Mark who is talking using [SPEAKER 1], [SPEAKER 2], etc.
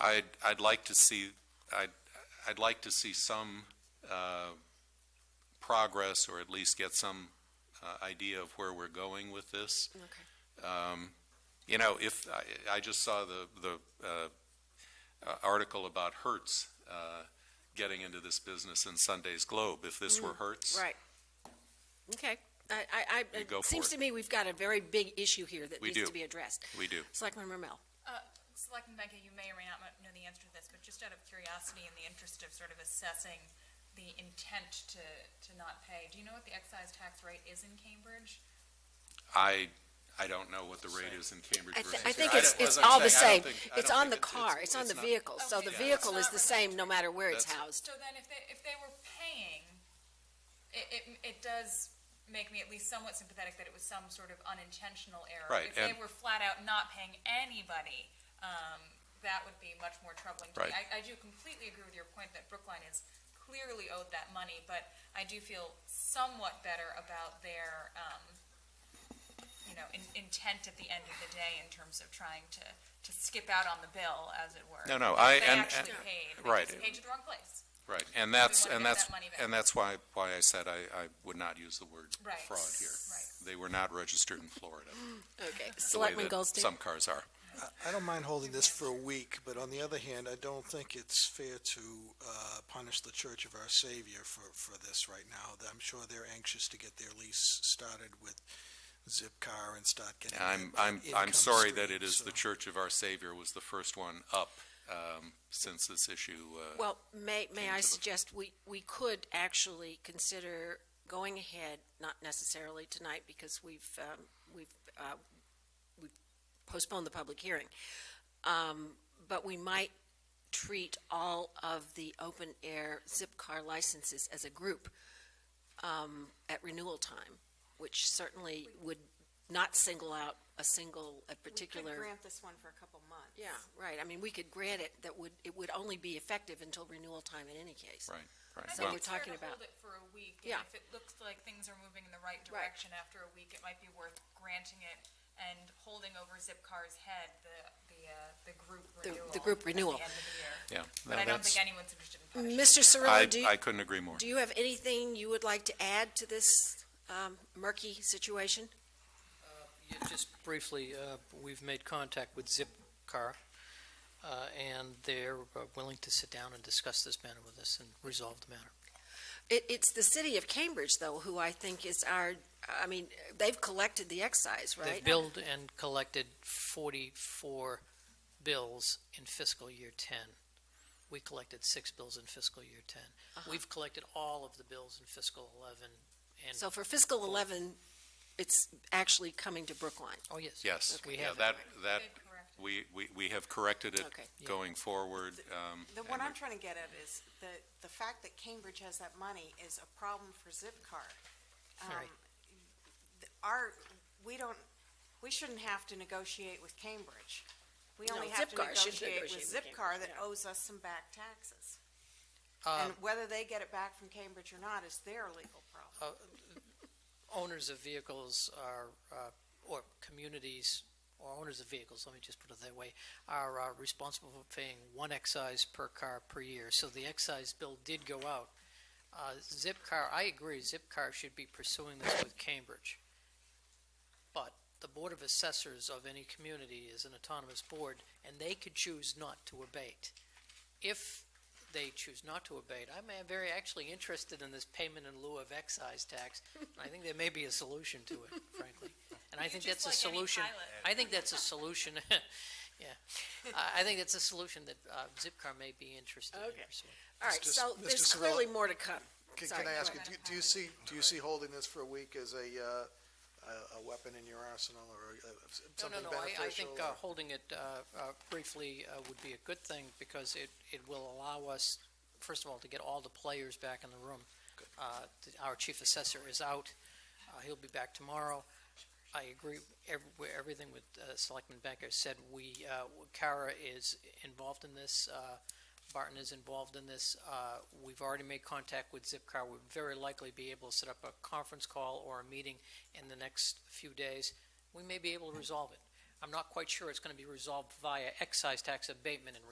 [SPEAKER 1] I'd, I'd like to see, I'd, I'd like to see some uh, progress, or at least get some uh, idea of where we're going with this.
[SPEAKER 2] Okay.
[SPEAKER 1] Um, You know, if, I, I just saw the, the uh, uh, article about Hertz uh, getting into this business in Sunday's Globe. If this were Hertz,
[SPEAKER 2] Right. Okay. I, I, I,
[SPEAKER 1] You go
[SPEAKER 2] it
[SPEAKER 1] for
[SPEAKER 2] seems
[SPEAKER 1] it.
[SPEAKER 2] to me we've got a very big issue here that
[SPEAKER 1] We
[SPEAKER 2] needs
[SPEAKER 1] do.
[SPEAKER 2] to be addressed.
[SPEAKER 1] we do.
[SPEAKER 2] Selectman Rommel.
[SPEAKER 3] Uh, Selectman Benka, you may or may not mo- know the answer to this, but just out of curiosity in the interest of sort of assessing the intent to, to not pay, do you know what the excise tax rate is in Cambridge?
[SPEAKER 1] I, I don't know what the rate is in Cambridge
[SPEAKER 2] I,
[SPEAKER 1] versus here.
[SPEAKER 2] th- I think
[SPEAKER 1] don't-
[SPEAKER 2] it's,
[SPEAKER 1] as
[SPEAKER 2] it's
[SPEAKER 1] I'm
[SPEAKER 2] all the
[SPEAKER 1] saying, I don't
[SPEAKER 2] same.
[SPEAKER 1] think- I
[SPEAKER 2] It's
[SPEAKER 1] don't
[SPEAKER 2] on the
[SPEAKER 1] think
[SPEAKER 2] car, it's on the
[SPEAKER 1] not-
[SPEAKER 2] vehicle, so the
[SPEAKER 3] Okay,
[SPEAKER 2] vehicle
[SPEAKER 3] yeah.
[SPEAKER 2] is the same no matter where it's
[SPEAKER 1] That's-
[SPEAKER 2] housed.
[SPEAKER 3] So then if they, if they were paying, it, it, it does make me at least somewhat sympathetic that it was some sort of unintentional error.
[SPEAKER 1] Right,
[SPEAKER 3] If
[SPEAKER 1] and-
[SPEAKER 3] they were flat out not paying anybody, um, that would be much more troubling to me.
[SPEAKER 1] Right.
[SPEAKER 3] I, I do completely agree with your point that Brookline is clearly owed that money, but I do feel somewhat better about their, um, you know, in, intent at the end of the day in terms of trying to, to skip out on the bill, as it were.
[SPEAKER 1] No, no, I-
[SPEAKER 3] They
[SPEAKER 1] and-
[SPEAKER 3] actually
[SPEAKER 1] and-
[SPEAKER 3] paid, they
[SPEAKER 1] right.
[SPEAKER 3] just paid to the wrong place.
[SPEAKER 1] Right, and that's,
[SPEAKER 3] wanna
[SPEAKER 1] and
[SPEAKER 3] get
[SPEAKER 1] that's,
[SPEAKER 3] that money back.
[SPEAKER 1] and that's why, why I said I, I would not use the word
[SPEAKER 3] Right.
[SPEAKER 1] fraud here.
[SPEAKER 3] Right.
[SPEAKER 1] They were not registered in Florida,
[SPEAKER 2] Okay.
[SPEAKER 1] the way
[SPEAKER 2] Selectman
[SPEAKER 1] that
[SPEAKER 2] Goldstein.
[SPEAKER 1] some cars are.
[SPEAKER 4] I don't mind holding this for a week, but on the other hand, I don't think it's fair to uh, punish the Church of Our Savior for, for this right now. I'm sure they're anxious to get their lease started with Zipcar and start getting.
[SPEAKER 1] I'm,
[SPEAKER 4] that
[SPEAKER 1] I'm, I'm
[SPEAKER 4] income
[SPEAKER 1] sorry that
[SPEAKER 4] stream,
[SPEAKER 1] it is
[SPEAKER 4] so-
[SPEAKER 1] the Church of Our Savior was the first one up, um, since this issue, uh,
[SPEAKER 2] Well, may, may
[SPEAKER 1] Came
[SPEAKER 2] I
[SPEAKER 1] to the-
[SPEAKER 2] suggest we, we could actually consider going ahead, not necessarily tonight because we've, um, we've, uh, we've postponed the public hearing. Um, but we might treat all of the open air zip car licenses as a group, um, at renewal time, which certainly would not single out a single, a particular.
[SPEAKER 5] We could grant this one for a couple months.
[SPEAKER 2] Yeah, right. I mean, we could grant it, that would, it would only be effective until renewal time in any case.
[SPEAKER 1] right, right.
[SPEAKER 3] I
[SPEAKER 2] So
[SPEAKER 3] think
[SPEAKER 1] Well,
[SPEAKER 2] we're
[SPEAKER 3] it's fair
[SPEAKER 2] talking
[SPEAKER 3] to
[SPEAKER 2] about-
[SPEAKER 3] Hold it for a week,
[SPEAKER 2] Yeah.
[SPEAKER 3] and if it looks like things are moving in the right direction after a week, it might be worth granting it and holding over Zipcar's head the, the, uh, the group
[SPEAKER 2] The- the
[SPEAKER 3] renewal.
[SPEAKER 2] group
[SPEAKER 3] at
[SPEAKER 2] renewal.
[SPEAKER 3] the end of the year.
[SPEAKER 1] Yeah. No,
[SPEAKER 3] But I don't
[SPEAKER 1] that's-
[SPEAKER 3] think anyone's interested in punishing.
[SPEAKER 2] Mr.
[SPEAKER 1] I,
[SPEAKER 2] Cirillo, do you,
[SPEAKER 1] I couldn't agree more.
[SPEAKER 2] do you have anything you would like to add to this um, murky situation?
[SPEAKER 6] Uh, Yeah, Just briefly, uh, we've made contact with Zipcar, uh, and they're uh, willing to sit down and discuss this matter with us and resolve the matter.
[SPEAKER 2] It, it's the city of Cambridge, though, who I think is our, I mean, they've collected the excise, right?
[SPEAKER 6] They've billed and collected 44 bills in fiscal year 10. We collected six bills in fiscal year 10. We've collected all of the bills in fiscal 11,
[SPEAKER 2] So
[SPEAKER 6] and,
[SPEAKER 2] for fiscal 11, it's actually coming to Brookline.
[SPEAKER 6] oh, yes.
[SPEAKER 1] Yes,
[SPEAKER 6] We
[SPEAKER 1] yeah,
[SPEAKER 6] have,
[SPEAKER 1] that, that,
[SPEAKER 3] They've corrected.
[SPEAKER 1] we, we, we have corrected it
[SPEAKER 2] Okay.
[SPEAKER 6] Yeah.
[SPEAKER 1] going forward, um.
[SPEAKER 5] The,
[SPEAKER 1] and
[SPEAKER 5] what I'm
[SPEAKER 1] we-
[SPEAKER 5] trying to get at is the, the fact that Cambridge has that money is a problem for Zipcar. Um,
[SPEAKER 6] Right.
[SPEAKER 5] th- Our, we don't, we shouldn't have to negotiate with Cambridge. We
[SPEAKER 2] No,
[SPEAKER 5] only have to
[SPEAKER 2] Zipcar should
[SPEAKER 5] negotiate with
[SPEAKER 2] negotiate with
[SPEAKER 5] Zipcar
[SPEAKER 2] Cambridge,
[SPEAKER 5] that
[SPEAKER 2] yeah. Uh,
[SPEAKER 5] owes us some back taxes.
[SPEAKER 6] Um,
[SPEAKER 5] And whether they get it back from Cambridge or not is their legal problem.
[SPEAKER 6] uh, owners of vehicles are, uh, or communities, or owners of vehicles, let me just put it that way, are uh, responsible for paying one excise per car per year. So the excise bill did go out. Uh, Zipcar, I agree, Zipcar should be pursuing this with Cambridge. But the Board of Assessors of any community is an autonomous board, and they could choose not to abate. If they choose not to abate, I'm uh, very actually interested in this payment in lieu of excise tax. and I think there may be a solution to it, frankly. And I
[SPEAKER 3] You
[SPEAKER 6] think
[SPEAKER 3] just
[SPEAKER 6] that's a
[SPEAKER 3] like any
[SPEAKER 6] solution.
[SPEAKER 3] pilot.
[SPEAKER 6] I think that's a solution, yeah. I, I think that's a solution that uh, Zipcar may be interested in
[SPEAKER 2] Okay.
[SPEAKER 6] pursuing.
[SPEAKER 2] All right,
[SPEAKER 7] Mr.
[SPEAKER 2] so
[SPEAKER 7] Mr.
[SPEAKER 2] there's
[SPEAKER 7] Cirillo-
[SPEAKER 2] clearly more to come.
[SPEAKER 7] Can,
[SPEAKER 2] Sorry,
[SPEAKER 7] can I
[SPEAKER 2] go
[SPEAKER 7] ask you,
[SPEAKER 2] ahead.
[SPEAKER 7] do, do you see, do you see holding this for a week as a, uh, a, a weapon in your arsenal or uh,
[SPEAKER 6] No, no,
[SPEAKER 7] something
[SPEAKER 6] no, I, I think
[SPEAKER 7] beneficial?
[SPEAKER 6] uh,
[SPEAKER 7] or-
[SPEAKER 6] holding it uh, uh, briefly uh, would be a good thing because it, it will allow us, first of all, to get all the players back in the room. Uh, th- Our chief assessor is out. Uh, He'll be back tomorrow. I agree ev- with everything with uh, Selectman Becker said. We, uh, Kara is involved in this. uh, Barton is involved in this. Uh, We've already made contact with Zipcar. We'll very likely be able to set up a conference call or a meeting in the next few days. We may be able to resolve it. I'm not quite sure it's going to be resolved via excise tax abatement and